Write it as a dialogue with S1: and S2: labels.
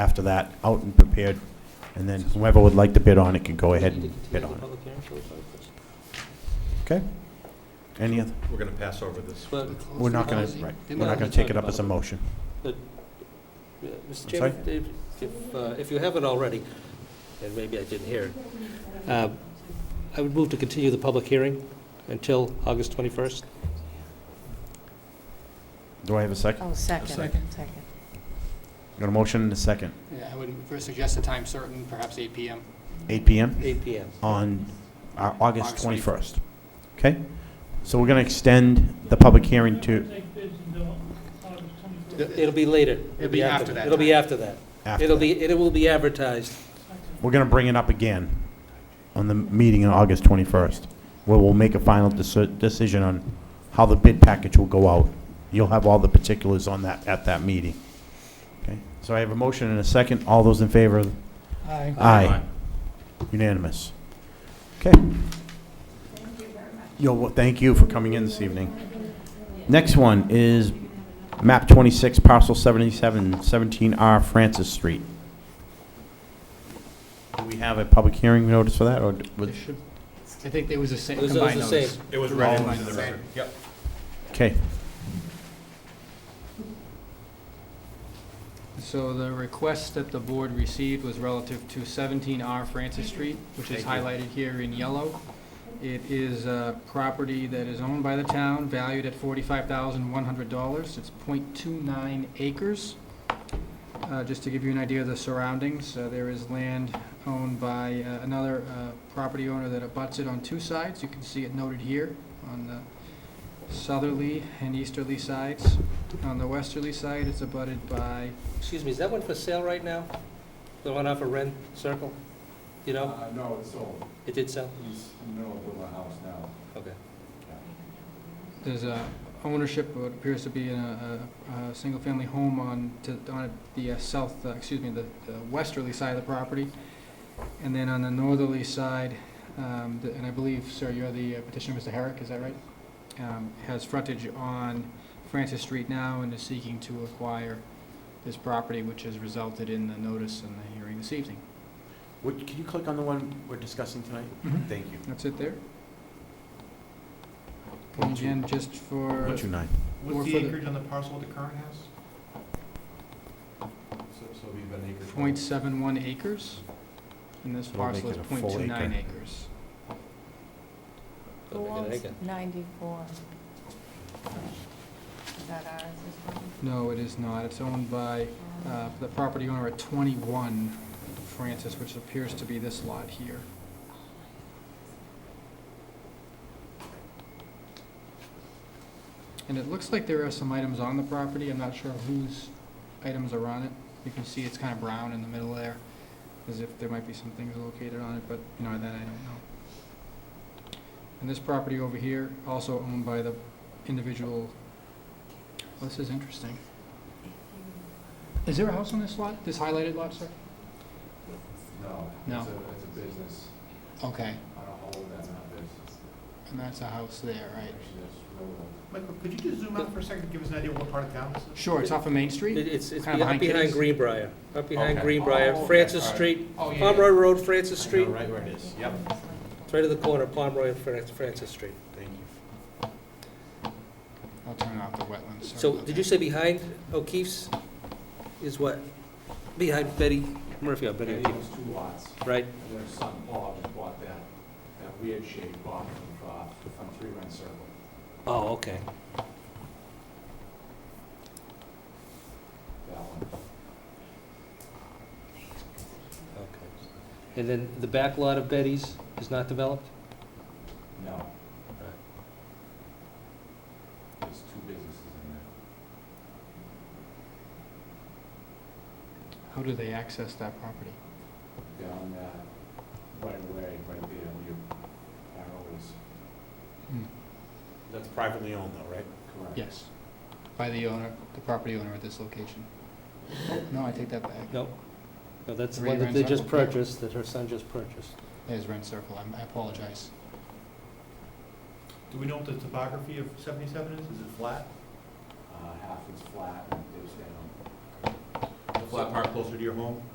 S1: after that, out and prepared, and then whoever would like to bid on it can go ahead and bid on it. Okay? Any other,
S2: We're going to pass over this.
S3: But,
S1: we're not gonna, right, we're not gonna take it up as a motion.
S3: uh, Mr.
S1: I'm
S3: Chairman, if, if, uh, if you haven't already, and maybe I didn't hear it, uh, I would move to continue the public hearing until August 21st.
S1: Do I have a second?
S4: Oh, second,
S2: second.
S4: second.
S1: Got a motion and a second.
S5: Yeah, I would first suggest a time certain, perhaps 8 PM.
S1: Eight PM?
S3: 8 PM.
S5: Oh.
S1: on uh, August
S5: August
S1: 21st. Okay? So we're going to extend the public hearing to
S3: It'll be later.
S5: It'll be after that
S3: It'll be
S5: time.
S3: after that.
S1: after.
S3: It'll be, it will be advertised.
S1: We're going to bring it up again on the meeting on August 21st, where we'll make a final deci- decision on how the bid package will go out. You'll have all the particulars on that, at that meeting. Okay? So I have a motion and a second. All those in favor?
S5: Aye.
S1: Aye. Unanimous. Okay. Yo, well, thank you for coming in this evening. Next one is map 26, parcel 77, 17R Francis Street. Do we have a public hearing notice for that, or d- was-
S5: I think there was a sa-
S3: It was- it was
S5: combined
S3: the
S5: notice.
S3: same.
S2: It was
S1: read
S2: read
S1: into
S2: into the record. Yep.
S1: okay,
S5: So the request that the board received was relative to 17R Francis Street, which is highlighted here in yellow. It is a property that is owned by the town, valued at $45,100. It's .29 acres. Uh, Just to give you an idea of the surroundings, uh, there is land owned by uh, another uh, property owner that abuts it on two sides. You can see it noted here on the southerly and easterly sides. On the westerly side, it's abutted by
S3: Excuse me, is that one for sale right now? The one off of Ren Circle? You know,
S6: Uh, No, it's sold.
S3: it did sell?
S6: He's in the middle of building a house now.
S3: Okay.
S5: There's a ownership, of what appears to be in a, a, a single-family home on, to, on the uh, south, uh, excuse me, the the westerly side of the property. And then on the northerly side, um, the- and I believe, sir, you're the uh, petitioner, Mr. Herrick, is that right? Um, Has frontage on Francis Street now and is seeking to acquire this property, which has resulted in the notice and the hearing this evening.
S1: Would- can you click on the one we're discussing tonight?
S2: Mm-hmm.
S1: Thank you.
S5: That's it there? And again, just for.
S1: 129.
S5: Or
S2: What's
S5: for
S2: the
S5: the-
S2: acreage on the parcel of the current house? So so it'd be about an acre.
S5: .71 acres, and this
S1: So we'll
S5: parcel
S1: make
S5: is
S1: it a
S5: .29
S1: full acre.
S5: acres.
S3: Go make it an acre.
S4: Ninety-four. Is that ours as well?
S5: No, it is not. It's owned by uh, the property owner at twenty-one Francis, which appears to be this lot here. And it looks like there are some items on the property. I'm not sure whose items are on it. You can see it's kind of brown in the middle there, as if there might be some things located on it, but, you know, that I don't know. And this property over here, also owned by the individual, well, this is interesting. Is there a house on this lot, this highlighted lot, sir?
S6: No.
S5: No.
S6: It's a, it's a business
S5: Okay,
S6: on a whole, that's not business.
S5: and that's a house there, right?
S6: Actually, that's rural.
S2: Michael, could you just zoom out for a second, and give us an idea what part of town this is?
S5: Sure, it's off of Main Street?
S3: It- It's, it's
S5: Kinda
S3: be- up
S5: behind
S3: behind
S5: Kitty's?
S3: Greenbrier, up behind
S2: Okay.
S3: Greenbrier,
S6: Oh, okay.
S3: Francis
S6: All right.
S3: Street,
S5: Oh,
S3: Pomeroy Road, Francis Street,
S1: Right where it is.
S2: Yep.
S3: it's right at the corner, of Pomeroy and Fran- Francis Street.
S1: Thank you.
S5: I'll turn off the wetlands. sorry
S3: So,
S5: about
S3: did you
S5: that.
S3: say behind O'Keefe's is what? Behind Betty Murphy, or Betty
S6: And
S3: O'Keefe,
S6: those two lots,
S3: right?
S6: and their son Paul just bought that, that weird shaped lot from, uh, from Three Run Circle.
S3: Oh, okay.
S6: That one.
S3: And then the back lot of Betty's is not developed?
S6: No. There's two businesses in there.
S5: How do they access that property?
S6: Down, uh, right away, right there, where your arrow is.
S5: Hmm.
S1: That's privately owned though, right?
S6: Correct.
S5: Yes, by the owner, the property owner at this location. Oh, No, I take that back.
S3: No? No, that's the
S5: Three
S3: one that
S5: Rens
S3: they
S5: up
S3: just
S5: up there.
S3: purchased, that her son just purchased.
S5: There's Ren Circle, I'm- I apologize.
S2: Do we know what the topography of 77 is? Is it flat?
S6: Uh, half is flat and it dips down.
S2: What's
S6: So park closer to your home?